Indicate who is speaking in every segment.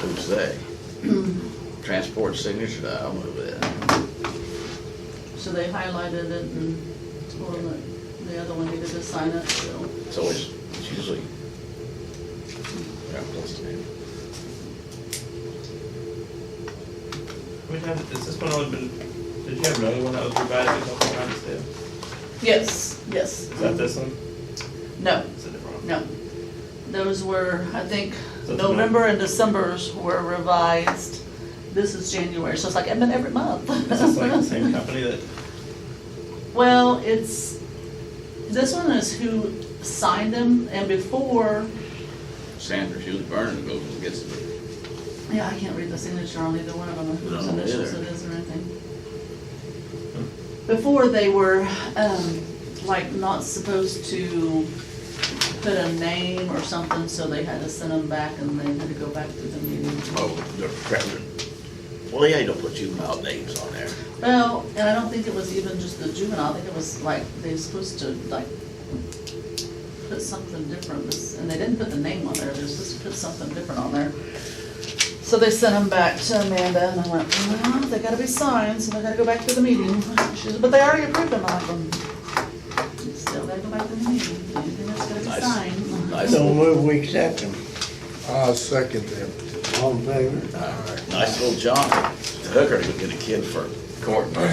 Speaker 1: who's they? Transport signature, I'll move that.
Speaker 2: So they highlighted it and told them that the other one needed to sign it, so.
Speaker 1: It's always, it's usually. Yeah, that's the name.
Speaker 3: We have, is this one always been, did you have another one that was revised a couple times too?
Speaker 2: Yes, yes.
Speaker 3: Is that this one?
Speaker 2: No,
Speaker 3: It's a different one.
Speaker 2: no. Those were, I think,
Speaker 3: So it's not-
Speaker 2: November and December's were revised. This is January, so it's like, I've been every month.
Speaker 3: Is this like the same company that,
Speaker 2: Well, it's, this one is who signed them, and before,
Speaker 1: Sanders usually burns, goes and gets it.
Speaker 2: yeah, I can't read the signature on either one of them, whose
Speaker 1: No, me
Speaker 2: initials
Speaker 1: either.
Speaker 2: it is or anything. Before, they were, um, like, not supposed to put a name or something, so they had to send them back, and they had to go back to the meeting.
Speaker 1: Oh, they're prepping. Well, they ain't gonna put juvenile names on there.
Speaker 2: Well, and I don't think it was even just the juvenile, I think it was like, they were supposed to like put something different, this- and they didn't put the name on there, they were supposed to put something different on there. So they sent them back to Amanda, and I went, well, they gotta be signed, so they gotta go back to the meeting. She said, but they already approved them, I went, still gotta go back to the meeting, anything that's gotta be
Speaker 1: Nice.
Speaker 2: signed.
Speaker 1: Nice,
Speaker 4: So move, we accept them.
Speaker 5: I'll second them.
Speaker 4: All in favor?
Speaker 1: nice little job. The hooker to get a kid for court, bring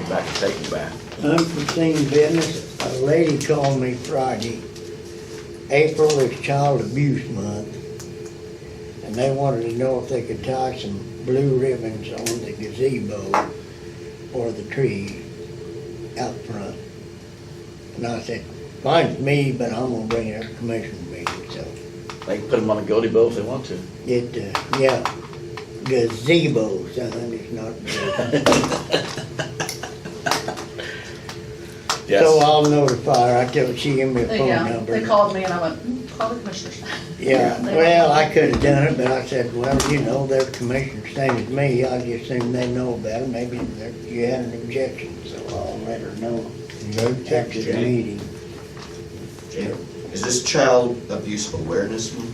Speaker 1: it back and take it back.
Speaker 4: Unforeseen business, a lady called me Friday. April is Child Abuse Month. And they wanted to know if they could tie some blue ribbons on the gazebo or the tree out front. And I said, find me, but I'm gonna bring it up to commission meeting, so.
Speaker 1: They can put them on a goatee bow if they want to.
Speaker 4: It, uh, yeah, gazebo, something, it's not. So
Speaker 1: Yes,
Speaker 4: I'll notify her, I tell, she gave me a phone
Speaker 2: Yeah,
Speaker 4: number.
Speaker 2: they called me, and I went, "Mm, call the commissioners.
Speaker 4: Yeah,
Speaker 2: They-
Speaker 4: well, I could've done it, but I said, well, you know, they're commissioners, same as me, I just assume they know about it, maybe they're- you had an objection, so I'll let her know
Speaker 5: No check
Speaker 4: after the meeting.
Speaker 6: Is this child abuse awareness month?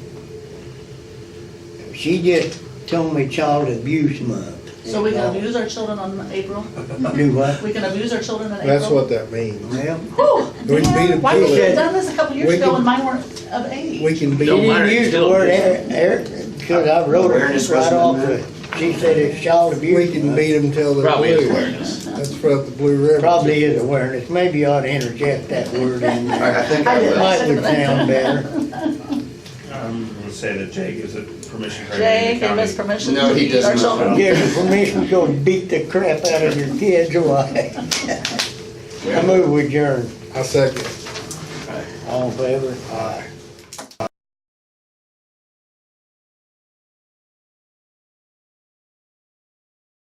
Speaker 4: She just told me Child Abuse Month.
Speaker 2: So we can abuse our children on April?
Speaker 4: Do what?
Speaker 2: We can abuse our children in April.
Speaker 5: That's what that means.
Speaker 4: Well,
Speaker 2: Whew,
Speaker 5: We can beat 'em
Speaker 2: why did
Speaker 5: to
Speaker 2: you
Speaker 5: it.
Speaker 2: have done this a couple years
Speaker 5: We
Speaker 2: ago
Speaker 5: can-
Speaker 2: when mine weren't of age?
Speaker 4: we can be, you
Speaker 1: Don't
Speaker 4: didn't
Speaker 1: mind
Speaker 4: use the
Speaker 1: Child
Speaker 4: word
Speaker 1: Abuse.
Speaker 4: er, because I wrote
Speaker 6: Awareness
Speaker 4: it right
Speaker 6: wasn't
Speaker 4: off,
Speaker 6: in there.
Speaker 4: it. she said it's Child
Speaker 5: We
Speaker 4: Abuse
Speaker 5: can
Speaker 4: Month.
Speaker 5: beat them till they're
Speaker 1: probably is
Speaker 5: blue.
Speaker 1: awareness.
Speaker 5: That's for the blue ribbon.
Speaker 4: Probably is awareness, maybe you ought to interject that word in there.
Speaker 6: I I think
Speaker 2: I
Speaker 6: I
Speaker 2: did.
Speaker 6: would.
Speaker 4: Might would sound better.
Speaker 3: I'm gonna say that Jay gives it permission for
Speaker 2: Jay
Speaker 3: every
Speaker 2: gave us
Speaker 3: county.
Speaker 2: permission
Speaker 6: No,
Speaker 2: to
Speaker 6: he
Speaker 2: abuse our
Speaker 6: does not.
Speaker 2: children.
Speaker 4: Give you permission to go beat the crap out of your kids, why? I move with adjourn.
Speaker 5: I second.
Speaker 4: All in favor? Aye.